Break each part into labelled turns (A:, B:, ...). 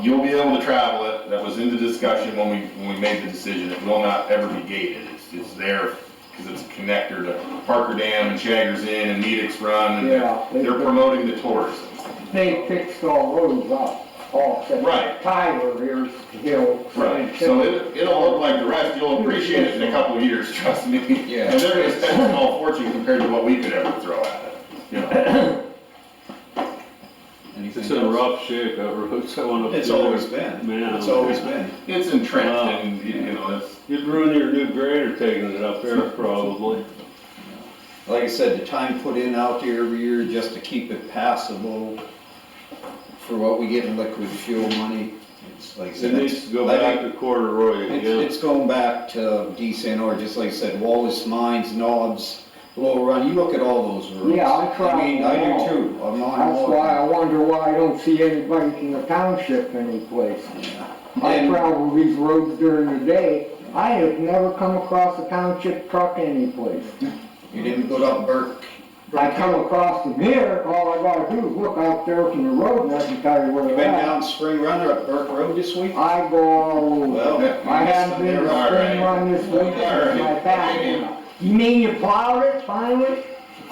A: you'll be able to travel it, that was in the discussion when we, when we made the decision, it will not ever be gated, it's, it's there, cause it's a connector to Parker Dam and Shaggers Inn and Meadix Run, and they're,
B: Yeah,
A: they're
B: they,
A: promoting the tourism.
B: they fixed all roads up, all except
A: Right.
B: Tyler here's Hill.
A: Right, so it, it'll look like the rest, you'll appreciate it in a couple of years, trust me.
C: Yeah.
A: And they're gonna spend a small fortune compared to what we could ever throw at it, you know?
D: It's
C: Anything
D: in
C: else?
D: rough shape, that road's going up.
C: It's
D: through
C: always
D: there.
C: been,
D: Man.
C: it's always been.
A: It's entrenched and, you know, it's,
D: You'd ruin your new grader taking it up there probably.
C: Like I said, the time put in out there every year just to keep it passable for what we get in liquid fuel money, it's like I
D: It
C: said.
D: needs to go
C: I think
D: back to corduroy again.
C: It's, it's going back to D. San Or, just like I said, Wallace Mines, Nobbs, Little Run, you look at all those roads.
B: Yeah, I travel
C: mean, I
B: them all.
C: do too, I'm on all
B: That's
C: of
B: why
C: them.
B: I wonder why I don't see anybody from the township anyplace. I
C: And-
B: travel these roads during the day, I have never come across a township truck anyplace.
C: You didn't go up Burke,
B: I come across them here, all I gotta do is look out there from the road and I can tell you where
C: you
B: they're
C: been
B: at.
C: down Spring Run or up Burke Road this week?
B: I go all
C: Well,
B: over.
C: you
B: I
C: missed
B: haven't
C: it.
B: been to
A: All
B: spring
A: right.
B: run this week,
A: All
B: it's my
A: right.
B: back. You mean you plowed it finally,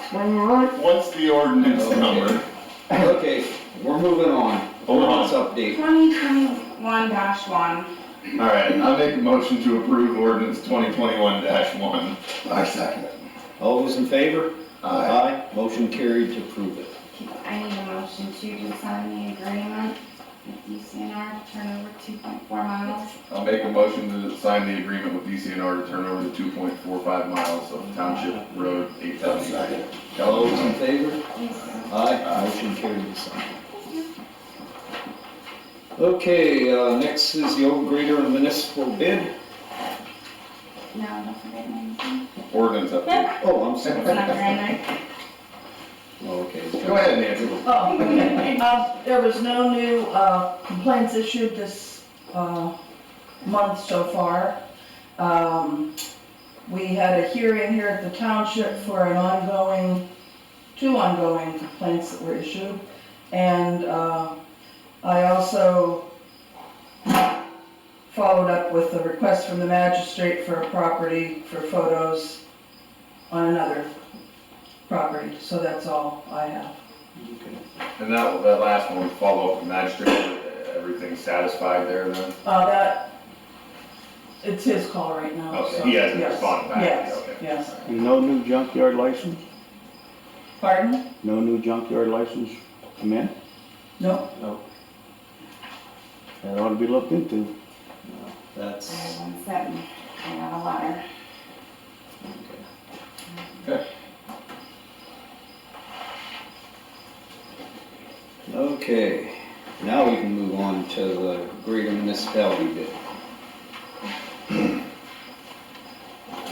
B: spring run?
A: what's the ordinance number?
C: Okay, we're moving on.
A: Hold on.
C: Let's update.
E: 2021-1,
A: All right, I make a motion to approve ordinance twenty twenty-one one.
F: I second it.
C: All those in favor?
F: Aye.
C: Motion carried to approve it.
E: I need a motion to sign the agreement with DCNR to turn over 2.4 miles.
A: I'll make a motion to sign the agreement with DCNR to turn over the two point four five miles of Township Road eight thousand.
C: All those in favor?
E: Yes.
C: Aye, motion carried to sign. Okay, uh, next is the old grader and municipal bid.
E: No, don't forget my name.
A: Ordinance update.
C: Oh, I'm
E: It's
C: sorry.
E: not there.
C: Oh, okay.
A: Go ahead, Nancy.
G: Oh, um, there was no new, uh, complaints issued this, uh, month so far. Um, we had a hearing here at the township for an ongoing, two ongoing complaints that were issued. And, uh, I also followed up with a request from the magistrate for a property for photos on another property, so that's all I have.
A: And that, that last one, follow up magistrate, everything satisfied there then?
G: Uh, that, it's his call right now,
A: Okay,
G: so.
A: he hasn't
G: yes,
A: responded back,
G: Yes,
A: okay.
G: yes.
H: No new junkyard license?
G: Pardon?
H: No new junkyard license come in?
G: No,
H: That ought to be looked into.
E: I
C: That's,
E: have one seven. I got a letter.
C: okay. Now we can move on to the grader municipality bid.
E: You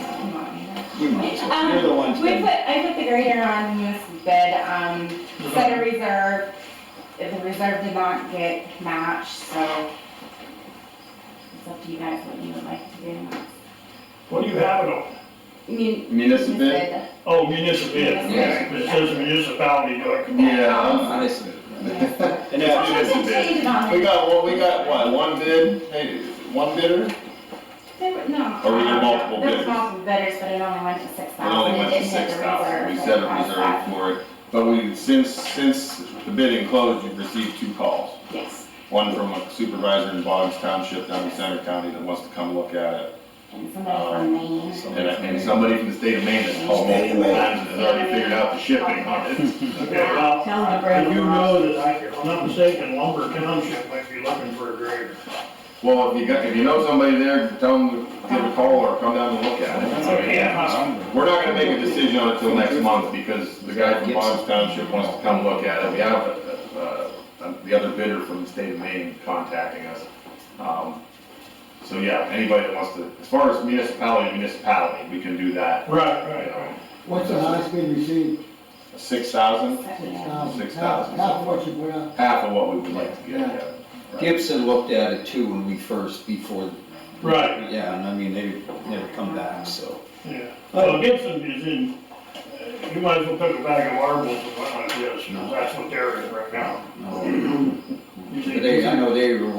E: want me to-
C: You might as well,
A: Um,
C: you're the one
E: Um, We
C: to.
E: put, I put the grader on this bid, um, set a reserve. The reserve did not get matched, so it's up to you guys what you would like to do.
I: What do you have it on?
E: Mun-
A: Municipal bid?
I: Oh, municipal bid.
E: Yes.
I: It says municipality, do I?
A: Yeah.
C: Honest.
E: Yes.
C: And
E: Well,
C: that,
E: I can change it on
A: We
E: there.
A: got, what, we got, what, one bid? Hey, one bidder?
E: There were, no. Um,
A: Or were there multiple
E: There
A: bidders?
E: was multiple bidders, but it only went to six
A: It
E: thousand.
A: only went to six thousand, we set a reserve for it, but we, since, since the bidding closed, you've received two calls.
E: Yes,
A: One from a supervisor in Boggs Township down in Center County that wants to come look at it,
E: and somebody
A: Um,
E: from Maine.
A: and, uh, and somebody from the state of Maine that's called
F: State of
A: multiple
F: Maine.
A: times and has already figured out the shipping on it.
I: Okay, well,
G: Tell them to grab
I: Uh, and you
G: them
I: know that I, if I'm not mistaken, Lumber Township might be looking for a grader.
A: Well, if you got, if you know somebody there, tell them to give a call or come down and look at it. I mean,
C: Um,
A: We're not gonna make a decision on it till next month, because the guy from Boggs Township wants to come look at it, we have, uh, uh, the other bidder from the state of Maine contacting us. Um, So, yeah, anybody that wants to, as far as municipality, municipality, we can do that,
I: Right,
A: you
I: right,
A: know,
I: right.
J: What's the highest bid you see?
A: six thousand,
E: Yeah.
A: Six
J: Half-
A: thousand.
J: Half what you put out.
A: half of what we would like to get, yeah.
C: Gibson looked at it too when we first, before,
I: Right,
C: yeah, and I mean, they never come back, so.
I: yeah. Well, Gibson is in, uh, you might as well pick a bag of marbles and went like this, 'cause that's what they're in right now.
C: They, I know they were one